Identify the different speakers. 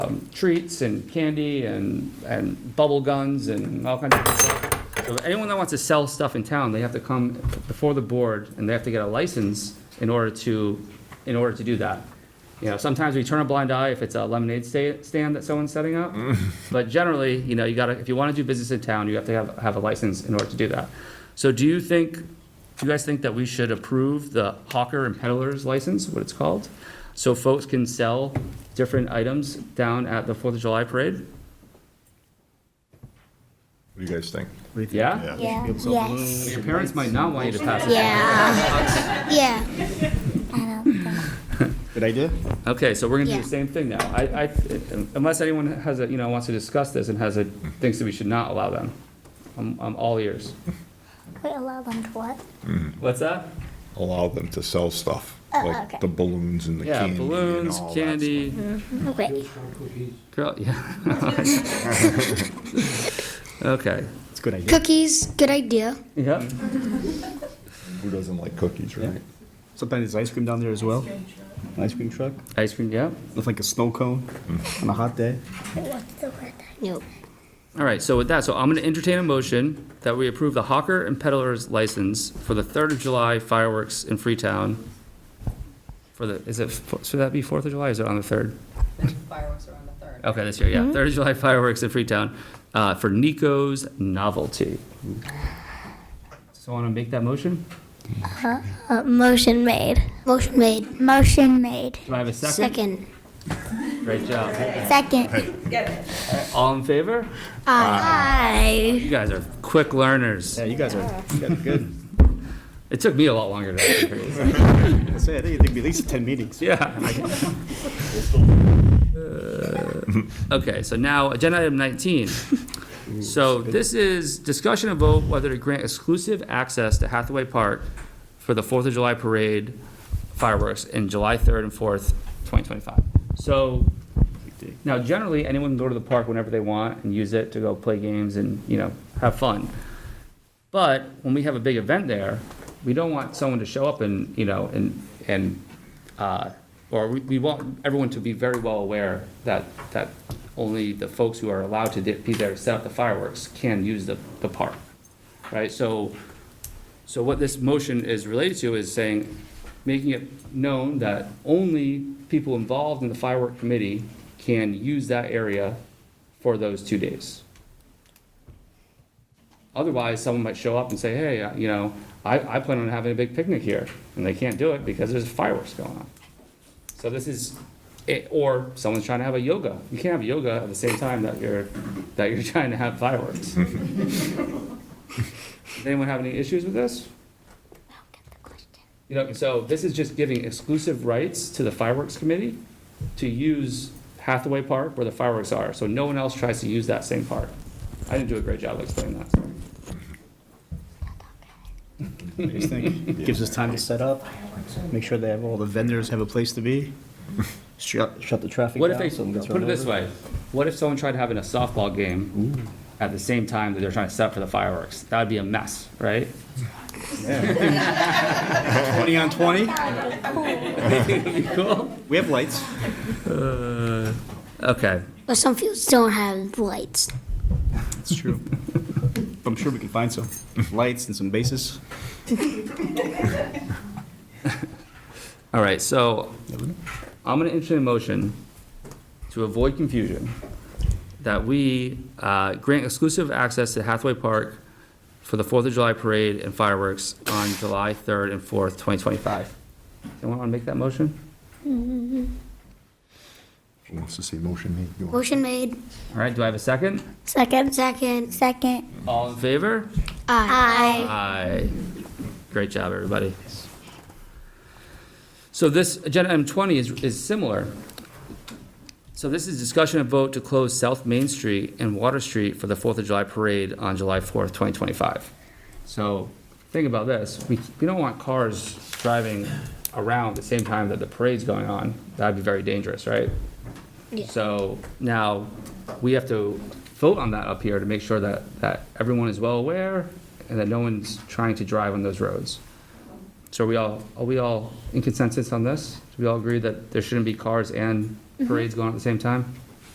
Speaker 1: um, treats and candy and, and bubble guns and all kinds of different stuff. So anyone that wants to sell stuff in town, they have to come before the board and they have to get a license in order to, in order to do that. You know, sometimes we turn a blind eye if it's a lemonade sta- stand that someone's setting up. But generally, you know, you gotta, if you wanna do business in town, you have to have, have a license in order to do that. So do you think, do you guys think that we should approve the hawker and peddler's license, what it's called? So folks can sell different items down at the Fourth of July parade?
Speaker 2: What do you guys think?
Speaker 1: Yeah?
Speaker 3: Yeah, yes.
Speaker 1: Your parents might not want you to pass it.
Speaker 3: Yeah. Yeah. I don't think.
Speaker 4: Good idea?
Speaker 1: Okay, so we're gonna do
Speaker 3: Yeah.
Speaker 1: the same thing now. I, I, unless anyone has a, you know, wants to discuss this and has a, thinks that we should not allow them. I'm, I'm all ears.
Speaker 3: We allow them to what?
Speaker 1: What's that?
Speaker 2: Allow them to sell stuff,
Speaker 3: Uh, okay.
Speaker 2: like the balloons and the
Speaker 1: Yeah,
Speaker 2: candy and
Speaker 1: balloons,
Speaker 2: all that. stuff.
Speaker 1: candy,
Speaker 3: Okay.
Speaker 1: Girl, yeah. okay.
Speaker 4: It's a good idea.
Speaker 5: Cookies, good idea.
Speaker 1: Yep.
Speaker 2: Who doesn't like cookies, right?
Speaker 4: Sometimes there's ice cream down there as well. Ice cream truck,
Speaker 1: Ice cream, yeah.
Speaker 4: looks like a snow cone
Speaker 1: Mm.
Speaker 4: on a hot day.
Speaker 3: What's the word?
Speaker 5: Nope.
Speaker 1: All right, so with that, so I'm going to entertain a motion that we approve the hawker and peddler's license for the 3rd of July fireworks in Freetown. For the, is it, f- should that be 4th of July, or is it on the 3rd?
Speaker 6: fireworks are on the third.
Speaker 1: Okay, this year, yeah, 3rd of July fireworks in Freetown uh, for Nico's Novelty. So want to make that motion?
Speaker 5: Uh, motion made.
Speaker 3: Motion made. Motion made.
Speaker 1: Do I have a second?
Speaker 5: Second.
Speaker 1: Great job.
Speaker 3: Second.
Speaker 1: All in favor?
Speaker 3: Aye.
Speaker 1: You guys are quick learners.
Speaker 4: Yeah, you guys are, you guys are good.
Speaker 1: It took me a lot longer to figure this out.
Speaker 4: I say, I think it'd be at least ten meetings.
Speaker 1: Yeah. Uh, Okay, so now, agenda item 19. So this is discussion and vote whether to grant exclusive access to Hathaway Park for the Fourth of July Parade fireworks in July 3rd and 4th, 2025. So now generally, anyone can go to the park whenever they want and use it to go play games and, you know, have fun. But when we have a big event there, we don't want someone to show up and, you know, and, and, uh, or we, we want everyone to be very well aware that, that only the folks who are allowed to be there to set up the fireworks can use the, the park, right? So, so what this motion is related to is saying, making it known that only people involved in the firework committee can use that area for those two days. Otherwise, someone might show up and say, hey, uh, you know, I, I plan on having a big picnic here, and they can't do it because there's fireworks going on. So this is, it- or someone's trying to have a yoga. You can't have yoga at the same time that you're, that you're trying to have fireworks. Does Anyone have any issues with this? You know, so this is just giving exclusive rights to the fireworks committee to use Hathaway Park where the fireworks are, so no one else tries to use that same park. I didn't do a great job of explaining that, sorry.
Speaker 4: What do you think? Gives us time to set up, make sure they have, all the vendors have a place to be. Shut, shut the traffic down.
Speaker 1: What if they,
Speaker 4: so we can
Speaker 1: let's
Speaker 4: turn
Speaker 1: put it this
Speaker 4: over.
Speaker 1: way, what if someone tried having a softball game at the same time that they're trying to set up for the fireworks? That would be a mess, right?
Speaker 4: Twenty on twenty,
Speaker 1: Cool.
Speaker 4: we have lights.
Speaker 1: Okay,
Speaker 5: But some fields don't have lights.
Speaker 4: It's true. I'm sure we can find some lights and some bases.
Speaker 1: all right, so I'm gonna entertain a motion to avoid confusion that we uh, grant exclusive access to Hathaway Park for the Fourth of July parade and fireworks on July third and fourth, twenty twenty-five. Anyone wanna make that motion?
Speaker 2: Who wants to see motion made? You want-
Speaker 5: Motion made.
Speaker 1: All right, do I have a second?
Speaker 3: Second.
Speaker 5: Second.
Speaker 3: Second.
Speaker 1: All in favor?
Speaker 5: Aye.
Speaker 1: Aye. Great job, everybody. So this, agenda item 20 is, is similar. So this is discussion and vote to close South Main Street and Water Street for the Fourth of July Parade on July 4th, 2025. So think about this, we, we don't want cars driving around at the same time that the parade's going on. That'd be very dangerous, right? So now, we have to vote on that up here to make sure that, that everyone is well aware and that no one's trying to drive on those roads. So are we all, are we all in consensus on this? Do we all agree that there shouldn't be cars and parades going on at the same time?